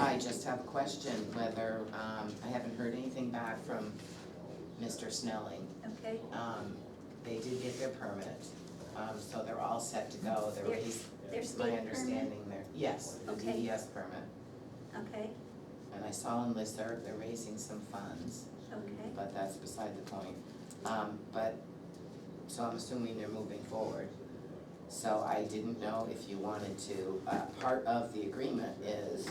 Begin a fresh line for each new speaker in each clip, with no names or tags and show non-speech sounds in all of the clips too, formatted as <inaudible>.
I just have a question, whether, um, I haven't heard anything back from Mr. Snelling.
okay?
Um, they did get their permit, um, so they're all set to go, there
Their-
was,
their
my
state permit,
understanding there, yes, the
Okay.
DES permit.
okay,
And I saw on Listserv, they're raising some funds,
okay,
but that's beside the point. Um, but, so I'm assuming they're moving forward. So I didn't know if you wanted to, uh, part of the agreement is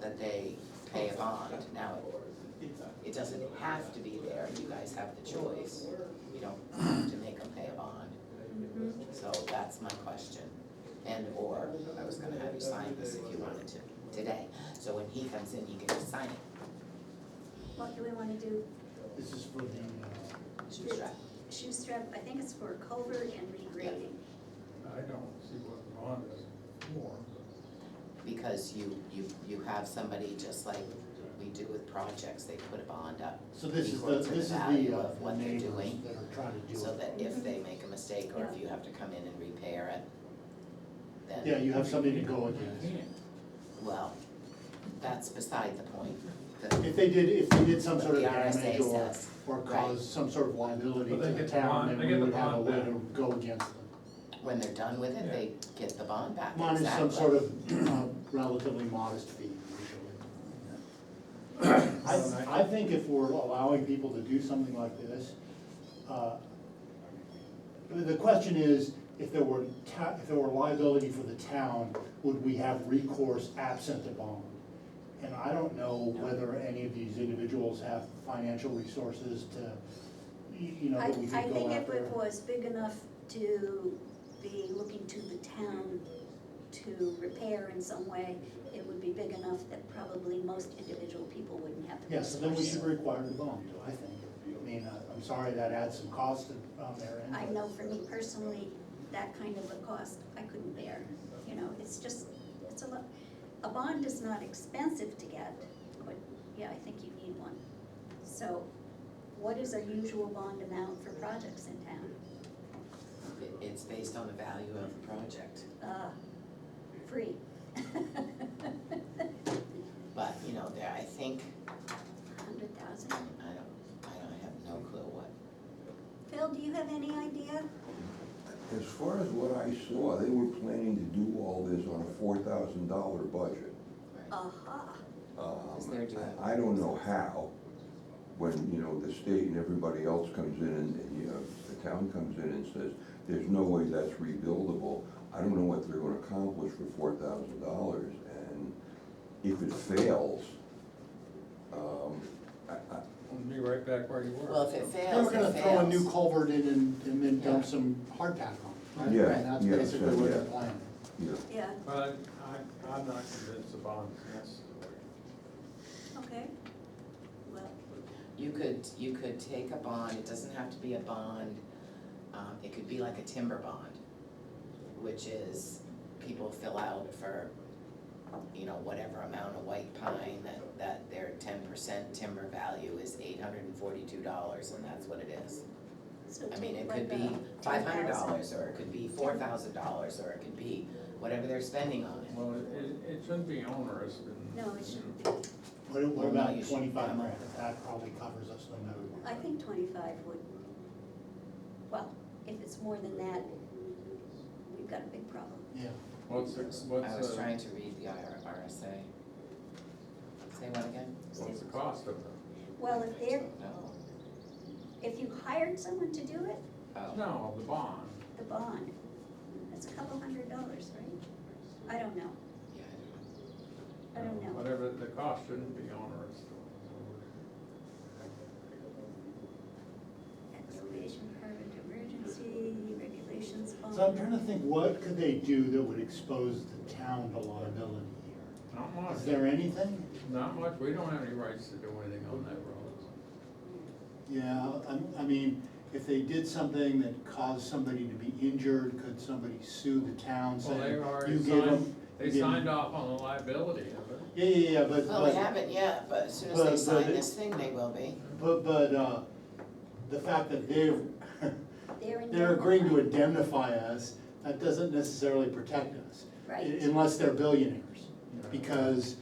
that they pay a bond. Now, it doesn't have to be there, you guys have the choice. You don't have to make them pay a bond,
mhm,
so that's my question. And or, I was gonna have you sign this if you wanted to, today, so when he comes in, he can just sign it.
what do we wanna do?
This is for the, uh,
Shoe strap.
Shoestrap, I think it's for culvert and regrading,
I don't see what the bond is.
more.
Because you, you, you have somebody, just like we do with projects, they put a bond up.
So this is the,
Equal to the
this is
value
the, uh,
of
the
what they're
neighbors
doing,
that are trying to do
So
it.
that if they make a mistake or if you have to come in and repair it,
Yeah,
then,
you have something to go against.
well, that's beside the point. The-
If they did, if they did some sort of
The RSA
damage or,
says,
or
right.
caused some sort of liability to
But they
the
get the
town,
bond-
then
they
we
get the
would have a
bond
way
back.
to go against them.
When they're done with it, they get the bond back,
Mine is some
exactly.
sort of <clears throat> uh, relatively modest fee usually. I, I think if we're allowing people to do something like this, uh, the- the question is, if there were ta, if there were liability for the town, would we have recourse absent the bond? And I don't know whether any of these individuals have financial resources to, y- you know,
I,
that we
I
could go
think if
after.
it was big enough to be looking to the town to repair in some way, it would be big enough that probably most individual people wouldn't have the
Yes,
resources.
then we should require the bond, I think. I mean, uh, I'm sorry that adds some cost to- on their end.
I
but-
know for me personally, that kind of a cost, I couldn't bear, you know, it's just, it's a lot. A bond is not expensive to get, but, yeah, I think you need one. So, what is our usual bond amount for projects in town?
It- It's based on the value of the project,
Uh, free. <laughs>
but, you know, there, I think,
Hundred thousand?
I don't, I don't have no clue what,
Phil, do you have any idea?
As far as what I saw, they were planning to do all this on a four thousand dollar budget.
Uh,
right?
Aha,
Um,
Because they're doing-
I I don't know how, when, you know, the state and everybody else comes in and, and, you know, the town comes in and says, there's no way that's rebuildable. I don't know what they're gonna accomplish for four thousand dollars, and if it fails, um, I, I,
We'll be right back where you were.
Well, if it
Then
fails,
we're
it
gonna throw a new
fails.
culvert in and, and then dump some hard pack on. it, right?
Yeah,
And that's
yeah,
basically what they're
yeah.
planning.
you know,
yeah,
But I, I'm not convinced the bond is necessary.
okay. Well,
You could, you could take a bond, it doesn't have to be a bond, um, it could be like a timber bond, which is, people fill out for, you know, whatever amount of white pine, that, that their ten percent timber value is eight hundred and forty-two dollars, and that's what it is.
so
I mean,
take
it
like
could
a
be five hundred
10,000.
dollars, or it could be four thousand dollars, or it could be whatever they're spending on it.
Well, it- it, it shouldn't be onerous and.
No, it shouldn't be.
What, what
Well,
about
you should
twenty-five
come up
grand? That probably covers us no matter what.
I think twenty-five would, well, if it's more than that, we've got a big problem.
Yeah.
What's, the-
I
what's,
was
the-
trying to read the IR RSA. Say what again?
what's the cost of it?
Well, if they're,
No,
if you hired someone to do it,
oh.
No, the bond.
the bond, that's a couple hundred dollars, right? I don't know,
Yeah, I
I don't know.
Whatever, the cost shouldn't be onerous.
Excavation permit, emergency regulations bond.
So I'm trying to think, what could they do that would expose the town to liability here?
Not much,
Is there anything?
not much, we don't have any rights to do anything on that road.
Yeah, I, I mean, if they did something that caused somebody to be injured, could somebody sue the town
Well, they
saying, you
already
gave
signed,
them?
they
you gave 'em-"
signed off on the liability of it.
Yeah, yeah, yeah, but,
Well, Oh, we
but,
haven't yet, but as soon as
but-
they
but
sign
it-
this thing, they will be.
but, but, uh, the fact that they've,
They're in.
<laughs> they're agreeing to indemnify us, that doesn't necessarily protect us.
Right.
Unless they're billionaires, because